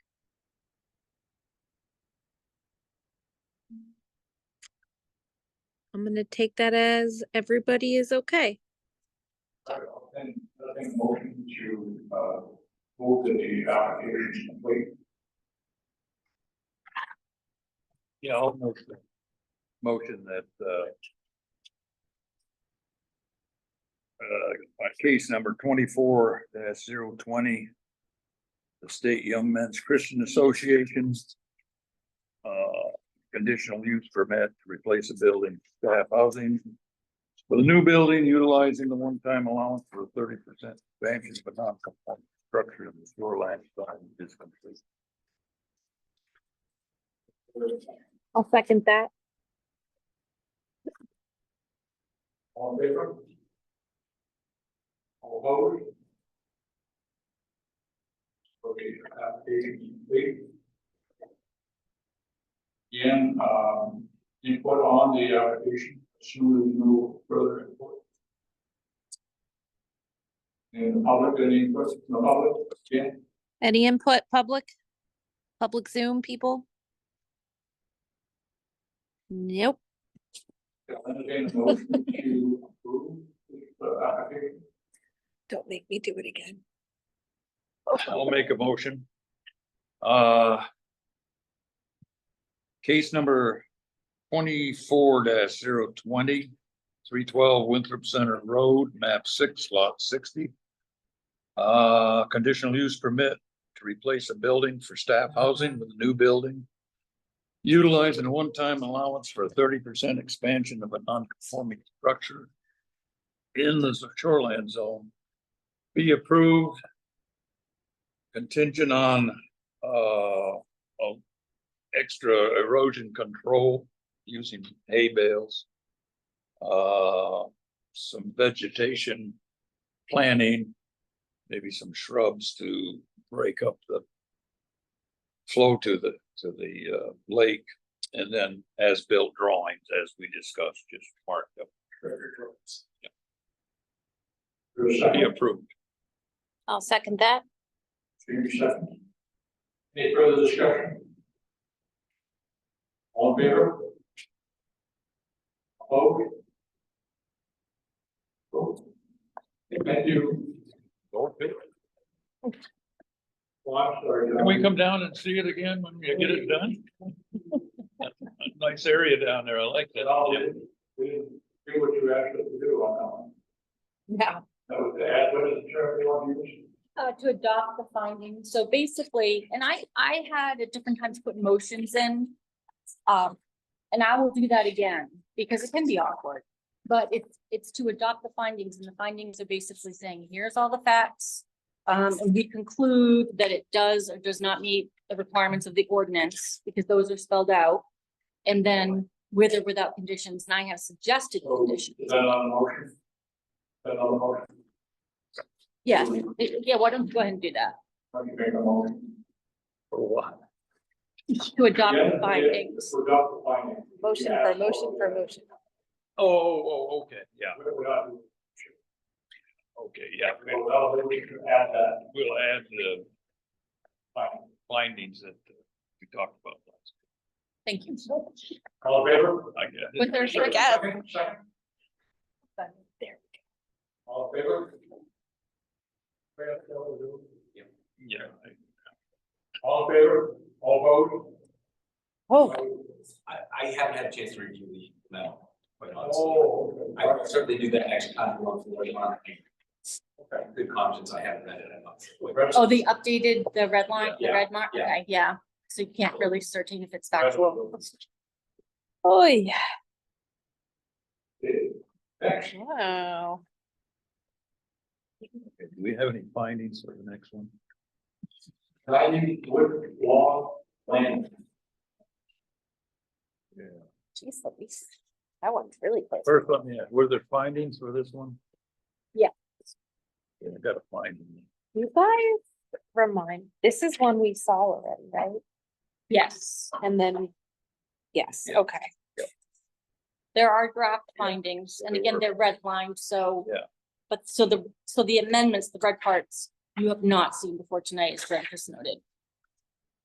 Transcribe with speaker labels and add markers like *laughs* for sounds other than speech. Speaker 1: I'm gonna take that as everybody is okay.
Speaker 2: Then, I think motion to, uh, move that the application is complete.
Speaker 3: Yeah, I'll motion. Motion that, uh. Uh, case number twenty-four dash zero twenty. The State Young Men's Christian Association. Uh, conditional use permit to replace a building, staff housing. For the new building utilizing the one-time allowance for thirty percent expansion, but non conforming structure of the shoreline sign is complete.
Speaker 1: I'll second that.
Speaker 2: All in favor? All opposed? Okay, uh, application is complete. Again, um, input on the application, assuming no further input. And the public, any questions from the public, again?
Speaker 1: Any input, public? Public Zoom people? Nope.
Speaker 2: I'll entertain a motion to approve the application.
Speaker 1: Don't make me do it again.
Speaker 3: I'll make a motion. Uh. Case number twenty-four 20 312 Winthrop Center Road, map six, lot sixty. Uh, conditional use permit to replace a building for staff housing with a new building. Utilizing a one-time allowance for a thirty percent expansion of a non-conforming structure. In the shoreland zone. Be approved contingent on uh of extra erosion control using hay bales. Uh, some vegetation planting, maybe some shrubs to break up the flow to the to the uh lake and then as built drawings as we discussed, just marked up.
Speaker 2: There's a
Speaker 3: To be
Speaker 2: second,
Speaker 3: approved.
Speaker 1: I'll second that.
Speaker 2: Jamie second. Any further discussion? All in favor? Opposed? Vote. Thank you. Well, Oh, I'm sorry.
Speaker 3: Can we come down and see it again when we get it done? *laughs* Nice area down there. I like
Speaker 2: At
Speaker 3: that.
Speaker 2: all, we didn't do what you asked us to do on that one.
Speaker 4: Yeah,
Speaker 2: That was the ad, what is the term you want to use?
Speaker 4: uh, to adopt the findings. So basically, and I, I had at different times put motions in. Um, and I will do that again because it can be awkward. But it's, it's to adopt the findings and the findings are basically saying, here's all the facts. Um, and we conclude that it does or does not meet the requirements of the ordinance because those are spelled out. And then with or without conditions, and I have suggested
Speaker 2: So,
Speaker 4: conditions.
Speaker 2: is that on the motion? Is That on the motion,
Speaker 4: Yeah, yeah, why don't you go ahead and do that?
Speaker 2: How do you make a motion?
Speaker 3: For what?
Speaker 4: To adopt
Speaker 2: Yeah,
Speaker 4: the
Speaker 2: yeah,
Speaker 4: findings.
Speaker 2: For Dr. Findings.
Speaker 5: Motion for, motion for, motion.
Speaker 3: Oh, oh, oh, okay, yeah,
Speaker 2: We- we ought to-
Speaker 3: okay, yeah.
Speaker 2: Well, well, then we should add that
Speaker 3: We'll add the
Speaker 2: finding.
Speaker 3: findings that uh, we talked about. last.
Speaker 4: Thank you.
Speaker 2: All in favor?
Speaker 3: I guess.
Speaker 4: But there's-
Speaker 5: Sure. Yes.
Speaker 2: Second, second.
Speaker 4: There.
Speaker 2: All in favor? We have to go to-
Speaker 3: Yeah, I-
Speaker 2: All in favor? All vote?
Speaker 5: Oh.
Speaker 6: I, I haven't had a chance to review the memo, quite honestly.
Speaker 2: Oh.
Speaker 6: I will certainly do that next time we're on the line.
Speaker 2: Okay.
Speaker 6: Good conscience, I haven't read it, I'm not sure.
Speaker 4: Oh, the updated, the red line, the
Speaker 6: Yeah,
Speaker 4: red mark,
Speaker 6: yeah.
Speaker 4: okay, yeah. So you can't really certain if it's factual.
Speaker 1: Oh, yeah.
Speaker 2: Next,
Speaker 1: Wow.
Speaker 3: okay, Do we have any findings for the next one?
Speaker 2: Dining wood law land.
Speaker 5: Jeez, Louise. That one's really close.
Speaker 3: First one, yeah, were there findings for this one?
Speaker 5: Yeah.
Speaker 3: Yeah, I gotta find them.
Speaker 5: You guys remind, this is one we saw already, right?
Speaker 4: Yes,
Speaker 5: And then, yes,
Speaker 3: Yeah.
Speaker 5: okay.
Speaker 4: there are draft findings and
Speaker 3: There
Speaker 4: again,
Speaker 3: were.
Speaker 4: they're redlined, so.
Speaker 3: Yeah.
Speaker 4: But so the, so the amendments, the red parts, you have not seen before tonight, as Grant has noted.